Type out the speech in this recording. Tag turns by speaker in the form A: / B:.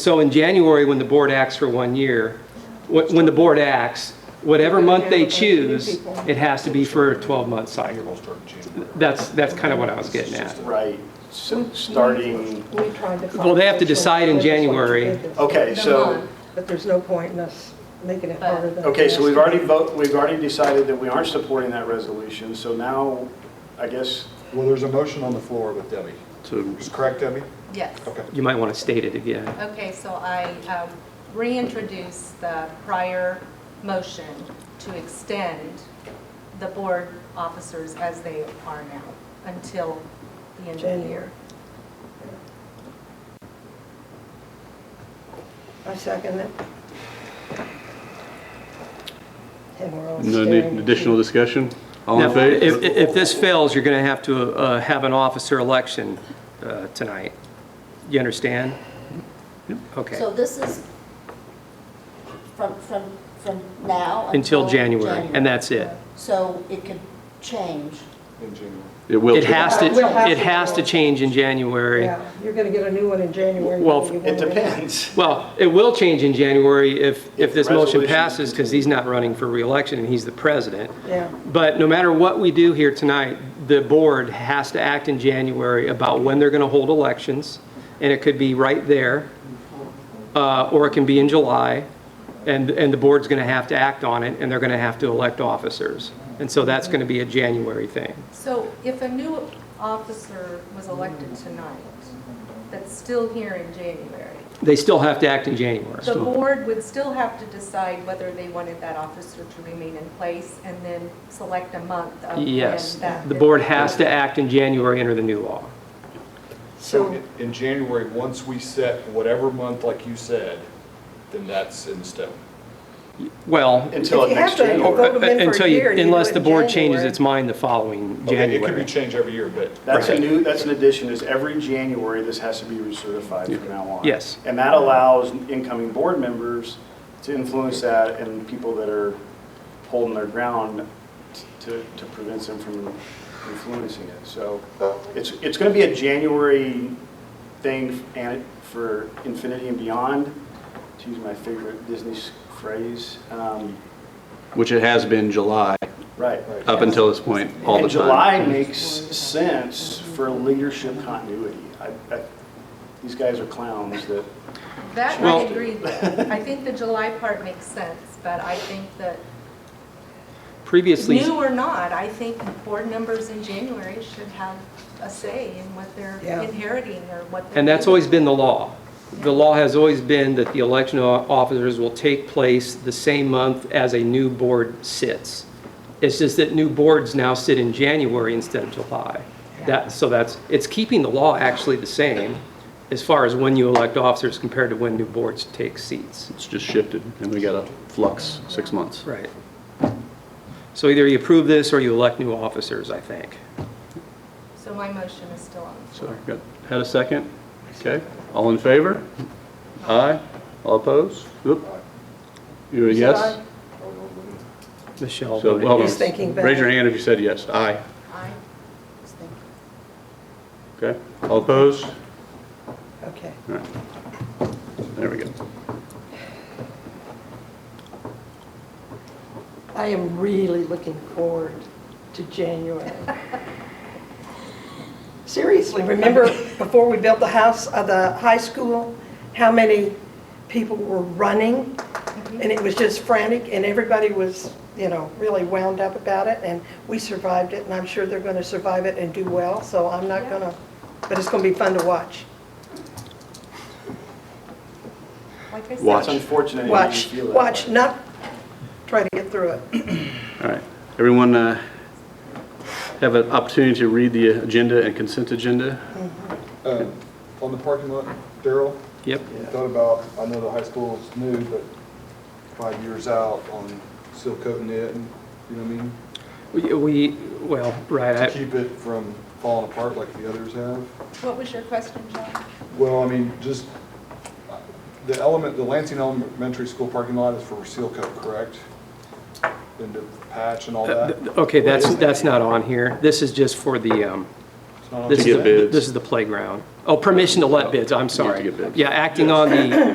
A: So in January, when the board acts for one year, wh- when the board acts, whatever month they choose, it has to be for a 12-month cycle. That's, that's kind of what I was getting at.
B: Right, so starting,
C: We tried to find.
A: Well, they have to decide in
C: which one
A: January.
C: they did this,
B: okay, so,
C: But there's no point in us making it harder than.
B: okay,
C: it
B: so we've
C: is.
B: already vote, we've already decided that we aren't supporting that resolution, so now, I guess,
D: Well, there's a motion on the floor with Debbie.
A: So
D: Is correct, Debbie?
E: Yes.
D: Okay.
A: you might want to state it again.
E: Okay, so I um, reintroduce the prior motion to extend the board officers as they are now until the end of the year.
C: I second it. And we're all
F: No
C: staring.
F: need- additional discussion? All in
A: Now, If,
F: favor?
A: if this fails, you're going to have to uh, have an officer election uh, tonight. You understand?
G: So
A: Okay,
G: this is from, from, from now?
A: until January, and that's it.
G: So it could change.
D: In January.
F: It will.
A: It has to,
C: We'll have
A: it
C: to-
A: has to change in January.
C: Yeah, you're going to get a new one in January.
A: Well,
C: whether you
B: it
C: want or not.
B: depends.
A: Well, it will change in January if, if
B: If
A: this motion
B: resolution
A: passes, because he's not running for reelection and he's the president.
C: Yeah.
A: But no matter what we do here tonight, the board has to act in January about when they're going to hold elections, and it could be right there, uh, or it can be in July, and, and the board's going to have to act on it, and they're going to have to elect officers. And so that's going to be a January thing.
E: So if a new officer was elected tonight, that's still here in January,
A: They still have to act in January.
E: the board would still have to decide whether they wanted that officer to remain in place and then select a month of when
A: Yes,
E: that-
A: the board has to act in January under the new law.
D: So
C: So,
D: in- in January, once we set whatever month, like you said, then that's in stone.
A: Well,
B: Until
C: If you
B: next
C: have to-
B: January.
C: vote them in for a
A: Until you-
C: year, you do
A: Unless
C: it
A: the
C: in
A: board changes
C: January.
A: its mind the following
D: Okay, Oh, It could be
A: January.
D: changed every year, but
B: That's a
A: Right.
B: new, that's an addition, is every January, this has to be recertified from now on.
A: Yes.
B: And that allows incoming board members to influence that and people that are holding their ground to, to prevent them from influencing it. So it's, it's going to be a January thing and for infinity and beyond, to use my favorite Disney phrase. Um,
F: Which it has been July,
B: Right.
F: up until this point, all the time.
B: And July makes sense for leadership continuity. I- I- These guys are clowns that,
E: That I
A: Well-
E: agree with. I think the July part makes sense, but I think that,
A: Previously,
E: new or not, I think board members in January should have a say in what they're
C: Yeah.
E: inheriting or what they're.
A: and that's always been the law. The law has always been that the election of officers will take place the same month as a new board sits. It's just that new boards now sit in January instead of July. That, so that's, it's keeping the law actually the same as far as when you elect officers compared to when new boards take seats.
F: It's just shifted, and we got a flux, six months.
A: Right. So either you approve this or you elect new officers, I think.
E: So my motion is still on. the floor.
F: So, got, had a second? Okay, all in favor? Aye? All opposed? Oop. You're a yes?
A: Michelle.
F: So,
A: voted
F: well,
C: He's thinking back.
F: Raise your hand if you said yes. Aye.
E: Aye.
F: Okay, all opposed?
C: okay.
F: All right. There we go.
C: I am really looking forward to January. Seriously, remember before we built the house, uh, the high school, how many people were running? And it was just frantic, and everybody was, you know, really wound up about it, and we survived it, and I'm sure they're going to survive it and do well, so I'm not going to, but it's going to be fun to watch.
E: Like I said.
F: Watch.
B: it's unfortunate. you
C: Watch,
B: feel that
C: watch,
B: way.
C: not try to get through it.
F: All right. Everyone uh, have an opportunity to read the agenda and consent agenda?
D: um, on the parking lot, Daryl,
A: Yep.
D: you thought about, I know the high school is new, but five years out on seal coating it, and you know what I mean?
A: We- We, well, right,
D: To
A: I-
D: keep it from falling apart like the others have.
E: What was your question, John?
D: Well, I mean, just, uh, the element, the Lansing Elementary School parking lot is for seal coat, correct? And to patch and all that?
A: Uh, okay, that's, that's not on here. This is just for the, um,
D: not on
A: This
F: To
A: is
F: get
A: the-
F: bids.
A: This is the playground. Oh, permission to let bids, I'm sorry.
F: get bids.
A: Yeah, acting on the,